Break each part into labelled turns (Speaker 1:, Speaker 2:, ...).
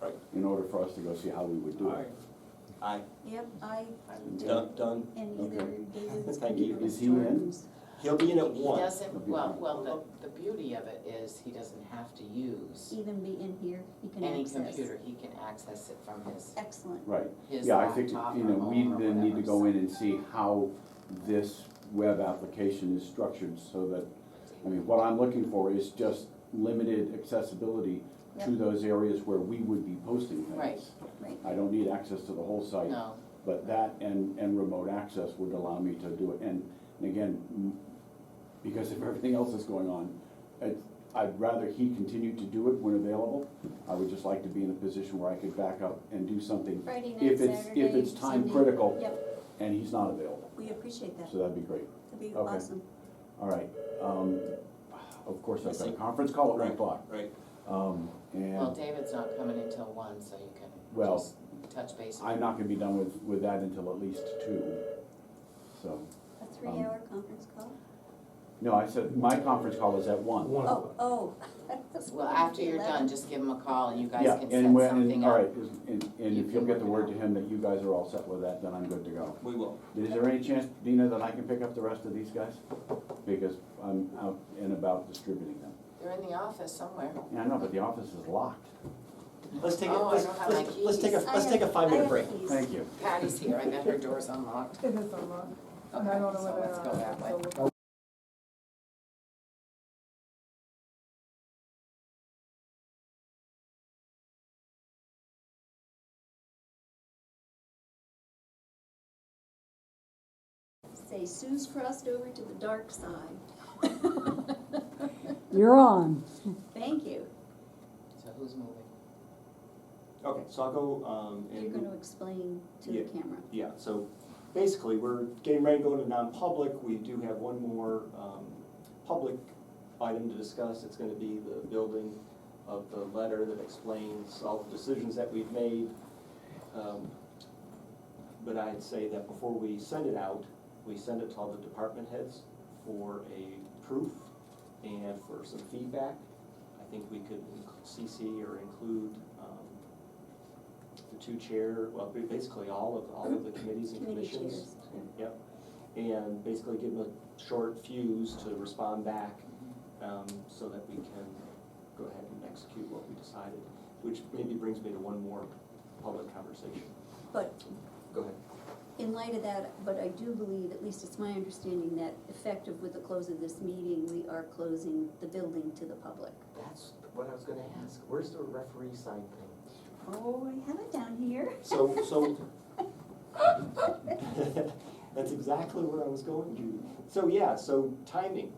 Speaker 1: Right.
Speaker 2: in order for us to go see how we would do
Speaker 1: All
Speaker 2: it.
Speaker 1: right. Aye,
Speaker 3: Yep, I
Speaker 1: done,
Speaker 3: did,
Speaker 1: done.
Speaker 3: and either
Speaker 2: Okay.
Speaker 3: David's.
Speaker 1: Thank you.
Speaker 2: Is he in?
Speaker 1: He'll be in at
Speaker 4: He
Speaker 1: one.
Speaker 4: doesn't, well, well, the, the beauty of it is he doesn't have to use
Speaker 3: Even be in here, he can
Speaker 4: any
Speaker 3: access.
Speaker 4: computer, he can access it from his,
Speaker 3: Excellent,
Speaker 2: Right,
Speaker 4: his
Speaker 2: yeah, I think,
Speaker 4: laptop
Speaker 2: you
Speaker 4: or
Speaker 2: know, we
Speaker 4: home or
Speaker 2: then need to
Speaker 4: whatever,
Speaker 2: go
Speaker 4: so-
Speaker 2: in and see how this web application is structured so that, I mean, what I'm looking for is just limited accessibility to
Speaker 3: Yep.
Speaker 2: those areas where we would be posting things.
Speaker 4: Right.
Speaker 3: right,
Speaker 2: I don't need access to the whole site.
Speaker 4: No,
Speaker 2: But that and, and remote access would allow me to do it, and, and again, m- because if everything else is going on, it, I'd rather he continue to do it when available, I would just like to be in a position where I could back up and do something
Speaker 3: Friday night,
Speaker 2: if it's,
Speaker 3: Saturday.
Speaker 2: if it's time
Speaker 3: Sunday.
Speaker 2: critical
Speaker 3: Yep,
Speaker 2: and he's not available,
Speaker 3: we appreciate that,
Speaker 2: so that'd be great,
Speaker 3: that'd be
Speaker 2: Okay.
Speaker 3: awesome.
Speaker 2: all right. Um, of course, I've got a
Speaker 1: Missing.
Speaker 2: conference call at one
Speaker 1: Right.
Speaker 2: o'clock,
Speaker 1: Right,
Speaker 2: um,
Speaker 4: well,
Speaker 2: and
Speaker 4: David's not coming until one, so you can
Speaker 2: Well,
Speaker 4: just touch base. with
Speaker 2: I'm not gonna be done with, with that until at least two, so.
Speaker 3: A three-hour
Speaker 2: Um,
Speaker 3: conference call?
Speaker 2: No, I said, my conference call is at one.
Speaker 5: One
Speaker 3: Oh,
Speaker 5: of them.
Speaker 3: oh. That's
Speaker 4: Well,
Speaker 3: gonna be
Speaker 4: after you're
Speaker 3: 11.
Speaker 4: done, just give him a call and you guys
Speaker 2: Yeah,
Speaker 4: can set
Speaker 2: and when, and,
Speaker 4: something
Speaker 2: all right,
Speaker 4: up.
Speaker 2: is- and, and
Speaker 4: You
Speaker 2: if you'll
Speaker 4: can
Speaker 2: get the
Speaker 4: work it
Speaker 2: word to him that you guys are all set with that, then I'm good to go.
Speaker 1: we will.
Speaker 2: Is there any chance, Dina, that I can pick up the rest of these guys? Because I'm out and about distributing them.
Speaker 4: They're in the office somewhere.
Speaker 2: Yeah, I know, but the office is locked.
Speaker 1: Let's take, a-
Speaker 4: Oh, I
Speaker 1: let's,
Speaker 4: don't have
Speaker 1: let's,
Speaker 4: my
Speaker 1: let's take a,
Speaker 3: I
Speaker 1: let's take a
Speaker 3: have-
Speaker 1: five-minute break.
Speaker 3: I have keys.
Speaker 2: Thank you.
Speaker 4: Patty's here, I bet her door's unlocked.
Speaker 6: It is a lot, and
Speaker 4: Okay,
Speaker 6: I don't know
Speaker 4: so
Speaker 6: whether.
Speaker 4: let's go that way.
Speaker 6: so we'll-
Speaker 3: Say Sue's crossed over to the dark side.
Speaker 7: You're on.
Speaker 3: Thank you.
Speaker 4: So who's moving?
Speaker 1: Okay, so I'll go, um, and.
Speaker 3: You're gonna explain to the
Speaker 1: Yeah.
Speaker 3: camera.
Speaker 1: Yeah, so basically, we're getting ready to go to non-public. We do have one more um, public item to discuss. It's gonna be the building of the letter that explains all the decisions that we've made. Um, But I'd say that before we send it out, we send it to all the department heads for a proof and for some feedback. I think we could inc- CC or include um, the two chair, well, ba- basically all of, all of the committees and
Speaker 3: Committee
Speaker 1: commissions.
Speaker 3: chairs.
Speaker 1: Yep, and basically give them a short fuse to respond back, um, so that we can go ahead and execute what we decided, which maybe brings me to one more public conversation.
Speaker 3: But
Speaker 1: Go ahead.
Speaker 3: in light of that, but I do believe, at least it's my understanding, that effective with the close of this meeting, we are closing the building to the public.
Speaker 1: That's what I was gonna ask, where's the referee sign thing?
Speaker 3: Oh, I have it down here.
Speaker 1: So, so. That's exactly where I was going, Judy. So, yeah, so timing.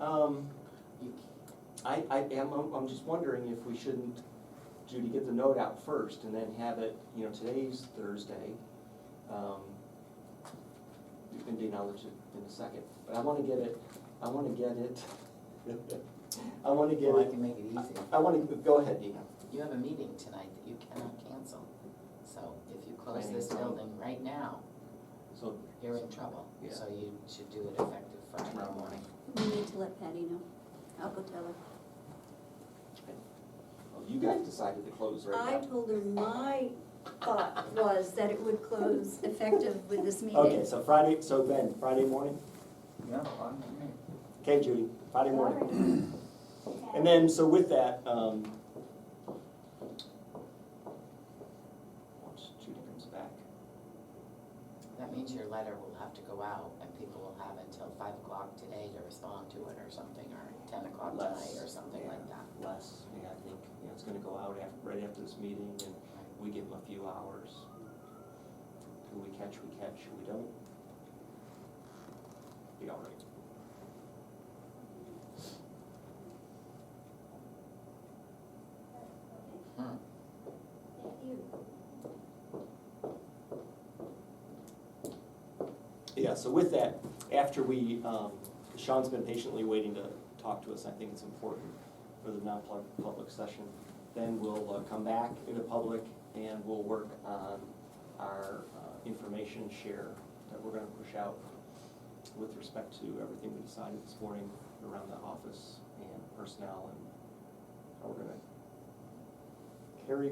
Speaker 1: Um,
Speaker 4: You
Speaker 1: I, I am, I'm, I'm just wondering if we shouldn't, Judy, get the note out first and then have it, you know, today's Thursday. Um, You can acknowledge it in a second, but I wanna get it, I wanna get it, I wanna get
Speaker 4: Well, I
Speaker 1: it,
Speaker 4: can make it easy.
Speaker 1: I wanna, go ahead, Dina.
Speaker 4: You have a meeting tonight that you cannot cancel. So if you close
Speaker 1: Planning
Speaker 4: this
Speaker 1: and zoning.
Speaker 4: building right now,
Speaker 1: So,
Speaker 4: you're in trouble.
Speaker 1: Yeah.
Speaker 4: So you should do it effective
Speaker 1: Tomorrow
Speaker 4: Friday
Speaker 1: morning.
Speaker 4: morning.
Speaker 3: We need to let Patty know. I'll go tell her.
Speaker 1: well, Oh, you guys decided to close
Speaker 3: I
Speaker 1: right now.
Speaker 3: told her my thought was that it would close effective with this
Speaker 1: Okay,
Speaker 3: meeting.
Speaker 1: so Friday, so Ben, Friday morning?
Speaker 5: Yeah,
Speaker 1: Okay, Judy, Friday morning. And then, so with that, um, once Judy comes back,
Speaker 4: That means your letter will have to go out and people will have until five o'clock today to respond to it or something, or ten o'clock
Speaker 1: Less,
Speaker 4: tonight or something like that.
Speaker 1: Les, yeah, I think, you know, it's gonna go out after, right after this meeting, and we give them a few hours. Who we catch, we catch, who we don't. Be all right.
Speaker 4: Hmm.
Speaker 1: Yeah, so with that, after we, um, Sean's been patiently waiting to talk to us, I think it's important for the non-public session. Then we'll uh, come back into public and we'll work on our uh, information share that we're gonna push out with respect to everything we decided this morning around the office and personnel and how we're gonna carry